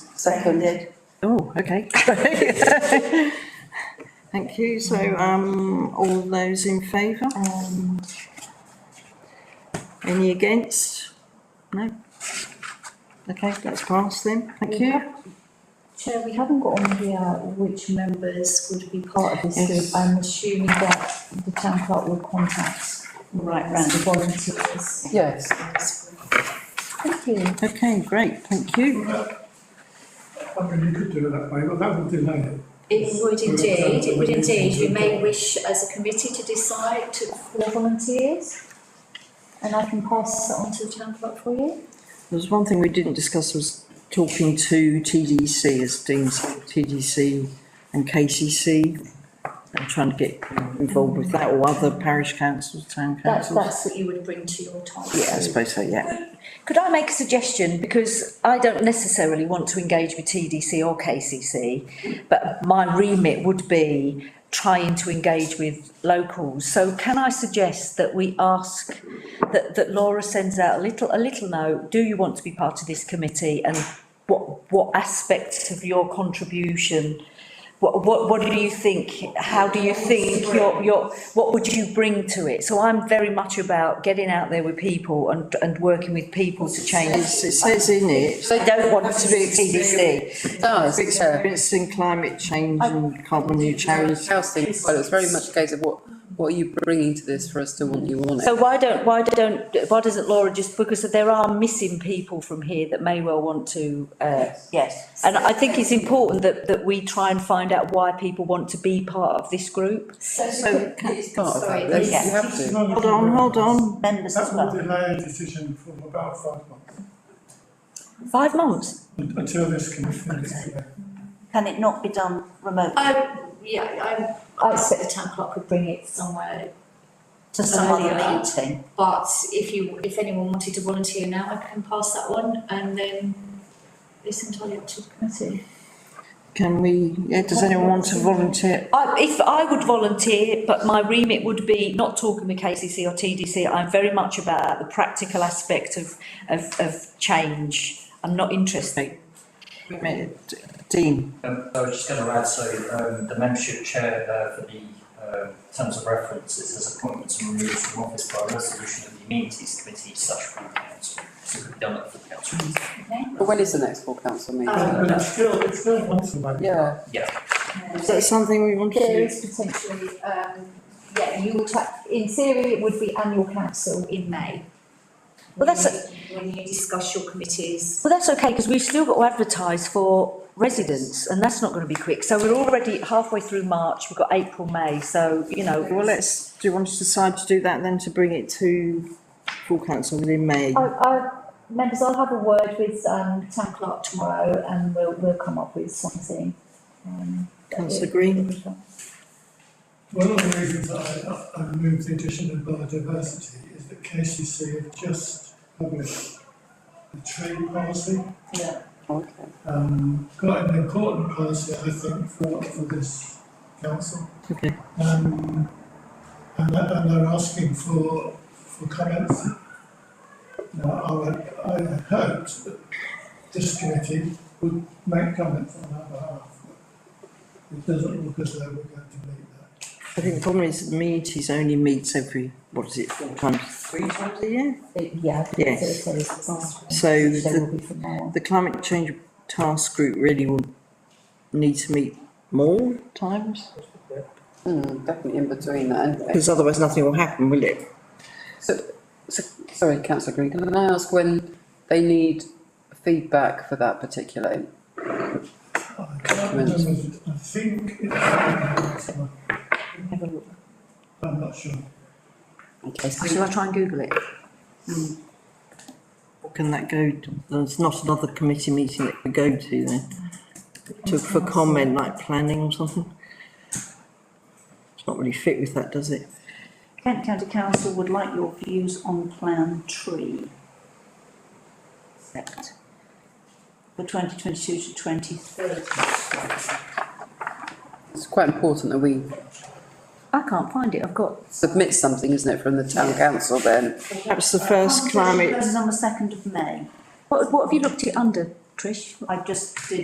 Seconded. Oh, okay. Thank you. So, um, all those in favour? Um, Any against? No? Okay, that's passed then. Thank you. Chair, we haven't got on here which members would be part of this Yes. group. I'm assuming that the town clerk will contact right round the volunteers. Yes. Thank you. Okay, great. Thank you. I mean, you could do it that way, but that would delay it. It would indeed, it would indeed, we may wish as a committee to decide to, For volunteers. And I can pass that on to the town clerk for you. There's one thing we didn't discuss was talking to TDC as Dean said, TDC and KCC. And trying to get involved with that or other parish councils, town that's, councils. that's what you would bring to your task. Yeah, I suppose so, yeah. Could I make a suggestion? Because I don't necessarily want to engage with TDC or KCC, but my remit would be trying to engage with locals. So can I suggest that we ask, that, that Laura sends out a little, a little note, do you want to be part of this committee? And what, what aspects of your contribution, what, what, what do you think? How do you think your, your, what would you bring to it? So I'm very much about getting out there with people and, and working with people to change. It's- It says in it, They don't want to be experienced. TDC. It does, yeah. experiencing climate change and carbon neutrality. Housing, as well, it's very much a case of what, what are you bringing to this for us to want you on it? So why don't, why don't, why doesn't Laura just, because there are missing people from here that may well want to, uh, yes. And I think it's important that, that we try and find out why people want to be part of this group. So, it's part of that, that's- you have to. Hold on, hold on. Members as That will well. delay a decision for about five months, Five months. un- until this commission is there. Can it not be done remotely? I, yeah, I, I expect the town clerk would bring it somewhere, To some other Earlier. meeting? but if you, if anyone wanted to volunteer now, I can pass that on and then it's entirely up to the committee. Can we, yeah, does anyone want to volunteer? I, if I would volunteer, but my remit would be not talking with KCC or TDC. I'm very much about the practical aspect of, of, of change. I'm not interested. Wait a minute, Dean, Um, I was just going to add, so, um, the membership chair, uh, for the, uh, terms of reference, it says appointments and removals from office by resolution of the amenities committee slash full council. So it could be done at full council. But when is the next full council meeting? But it's still, it's still once away. Um, Yeah, is that something we want to There do? is potentially, um, yeah, you would have, in theory, it would be annual council. In May. Well, that's a- When you discuss your committees Well, that's okay, because we've still got to advertise for residents, and that's not going to be quick. So we're already halfway through March, we've got April, May, so, you know. Well, let's, do you want us to decide to do that then to bring it to full council within May? I, I, members, I'll have a word with, um, town clerk tomorrow and we'll, we'll come up with something. um, that Councillor we- Green? we can- One of the reasons I, I moved the addition of biodiversity is that KCC have just published the trade policy. okay. Um, quite an important policy, I think, for, for this council. Okay, Um, and that, and they're asking for, for comments. Now, I would, I hoped that this committee would make comments on our behalf. It doesn't look as though we're going to meet that. I think the problem is the meetings only meets every, what is it, four times, three times a year? Yeah. Yes. So, so- So so the- will be from now on. The climate change task group really will need to meet more times, Hmm, definitely in between that, and, because otherwise nothing will happen, will it? so, sorry, councillor Green, can I ask when they need feedback for that particular? I can't remember, I think it's next month, I'm not sure. Okay, Shall so I try and Google it? Can that go, to- there's not another committee meeting that could go to then? To, for comment, like planning or something? It's not really fit with that, does it? Kent County Council would like your views on Plan Tree. Set. For twenty twenty-two to twenty thirty. it's quite important that we I can't find it, I've got. submit something, isn't it, from the town council then? Perhaps the first climate This is on the second of May. What, what have you looked it under, Trish? I just did